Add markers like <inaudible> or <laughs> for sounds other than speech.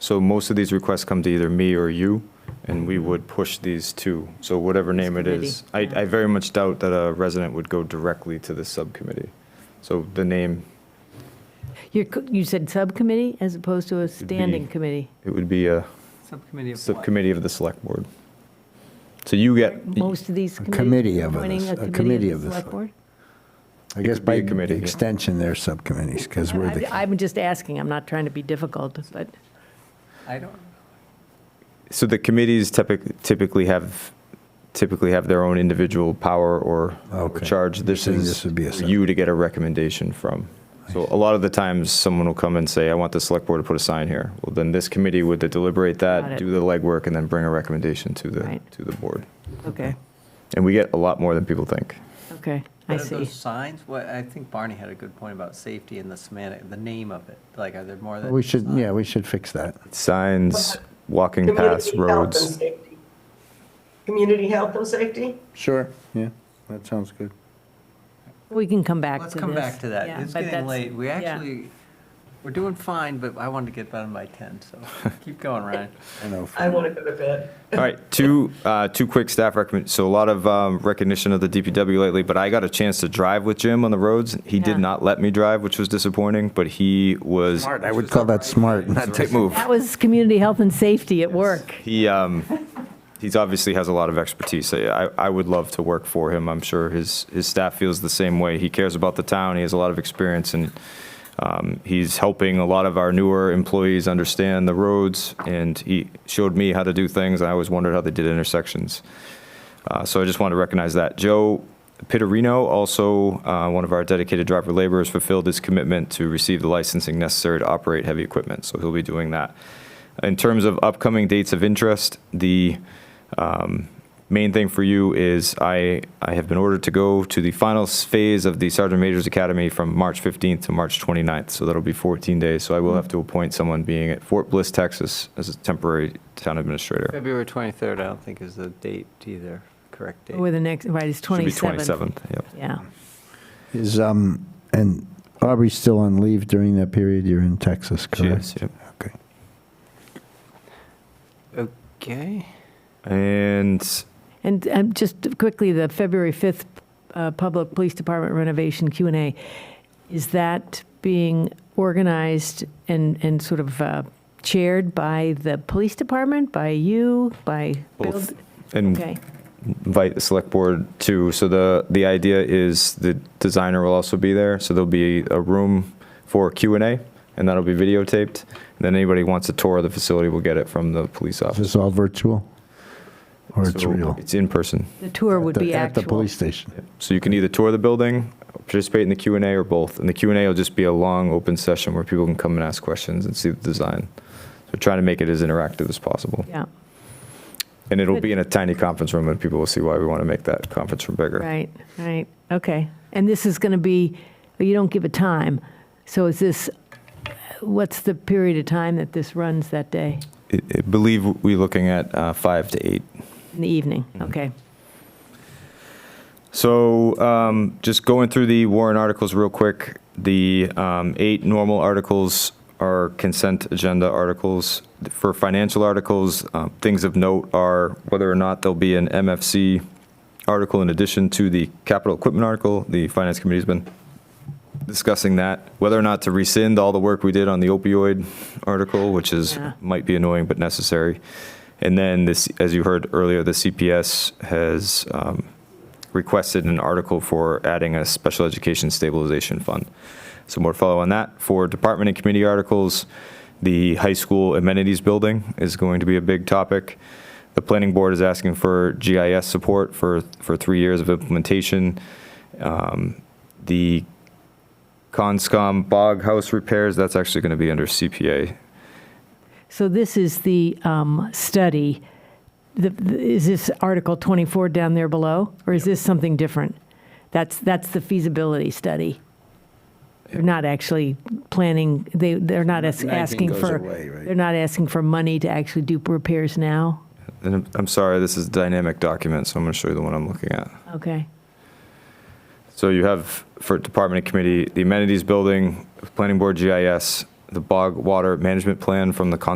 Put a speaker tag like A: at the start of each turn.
A: So most of these requests come to either me or you, and we would push these two. So whatever name it is. I, I very much doubt that a resident would go directly to this subcommittee. So the name,
B: You're co- You said subcommittee as opposed to a standing
A: be-
B: committee?
A: it would be a
C: Subcommittee of what?
A: subcommittee of the select board. So you get,
B: Most of these committees?
D: committee of
B: appointing
D: this- a
B: a
D: committee
B: committee of the select board?
D: I guess
A: could be
D: by
A: a committee, yeah.
D: extension, they're subcommittees, because we're
B: I-
D: the,
B: I'm just asking, I'm not trying to be difficult, but
C: I don't,
A: so the committees typically, typically have, typically have their own individual power or or
D: Okay.
A: charge. This
D: saying
A: is
D: this would be a
A: for you to get a recommendation from. So a lot of the times, someone will come and say, I want the select board to put a sign here. Well, then this committee would deliberate
B: Got
A: that,
B: it.
A: do the legwork, and then bring a recommendation to the,
B: Right.
A: to the board.
B: okay,
A: And we get a lot more than people think.
B: okay, I
C: what are
B: see.
C: those signs? What, I think Barney had a good point about safety and the semantic, the name of it. Like, are there more than?
D: we should, yeah, we should fix that.
A: Signs, walking
E: Community
A: paths,
E: health and
A: roads.
E: safety. Community health and safety?
D: Sure, yeah, that sounds good.
B: We can come back to
C: Let's
B: this.
C: come back to
B: Yeah,
C: that. It's
B: but
C: getting
B: that's-
C: late. We
B: yeah.
C: actually, we're doing fine, but I wanted to get done by 10,
D: <laughs>
C: so keep going, Ryan.
D: I know,
E: I want to go to bed.
A: All right, two, uh, two quick staff recommend, so a lot of um, recognition of the DPW lately, but I got a chance to drive with Jim on the roads. He
B: Yeah.
A: did not let me drive, which was disappointing, but he was.
D: smart, I would call that smart, not
A: Take move.
B: That was community health and safety at work.
A: He, um, he's obviously has a lot of expertise. I, I would love to work for him. I'm sure his, his staff feels the same way. He cares about the town. He has a lot of experience and, um, he's helping a lot of our newer employees understand the roads and he showed me how to do things. I always wondered how they did intersections. Uh, so I just want to recognize that. Joe Pittarino, also uh, one of our dedicated driver laborers, fulfilled his commitment to receive the licensing necessary to operate heavy equipment. So he'll be doing that. In terms of upcoming dates of interest, the um, main thing for you is I, I have been ordered to go to the final s- phase of the Sergeant Major's Academy from March 15th to March 29th. So that'll be 14 days. So I will have to appoint someone being at Fort Bliss, Texas as a temporary town administrator.
C: February 23rd, I don't think is the date either, correct date.
B: Or the next, right, it's 27.
A: Should be 27th, yep.
B: Yeah,
D: Is, um, and Aubrey's still on leave during that period, you're in Texas,
A: She
D: correct?
A: is, yep.
D: Okay.
C: Okay.
A: And
B: and um, just quickly, the February 5th uh, Public Police Department renovation Q and A, is that being organized and, and sort of uh, chaired by the police department, by you, by Bill?
A: both, and
B: Okay,
A: invite the select board too. So the, the idea is the designer will also be there. So there'll be a room for Q and A and that'll be videotaped. And then anybody who wants a tour of the facility will get it from the police
D: Is
A: office.
D: this all virtual? Or it's
A: So
D: real?
A: It's in person.
B: the tour would
D: At the-
B: be
D: At the
B: actual.
D: police station.
A: So you can either tour the building, participate in the Q and A or both. And the Q and A will just be a long open session where people can come and ask questions and see the design. So trying to make it as interactive as possible.
B: Yeah,
A: And it'll be in a tiny conference room and people will see why we want to make that conference room bigger.
B: right, right, okay. And this is going to be, you don't give a time, so is this, what's the period of time that this runs that day?
A: I I believe we're looking at uh, five to eight.
B: In the evening,
D: Mm-hmm.
B: okay.
A: So um, just going through the warrant articles real quick, the um, eight normal articles are consent agenda articles. For financial articles, um, things of note are whether or not there'll be an MFC article in addition to the capital equipment article. The Finance Committee's been discussing that, whether or not to rescind all the work we did on the opioid article, which is,
B: Yeah.
A: might be annoying but necessary. And then this, as you heard earlier, the CPS has um, requested an article for adding a special education stabilization fund. So more to follow on that. For department and committee articles, the high school amenities building is going to be a big topic. The planning board is asking for GIS support for, for three years of implementation. Um, The Conscom bog house repairs, that's actually going to be under CPA.
B: So this is the um, study, The- the- is this Article 24 down there below? Or is this something different? That's, that's the feasibility study. They're not actually planning, they, they're not as- asking
D: goes
B: for,
D: away, right?
B: they're not asking for money to actually do repairs now?
A: And I'm- I'm sorry, this is a dynamic document, so I'm going to show you the one I'm looking at.
B: Okay,
A: So you have for department and committee, the amenities building, planning board GIS, the bog water management plan from the Conscom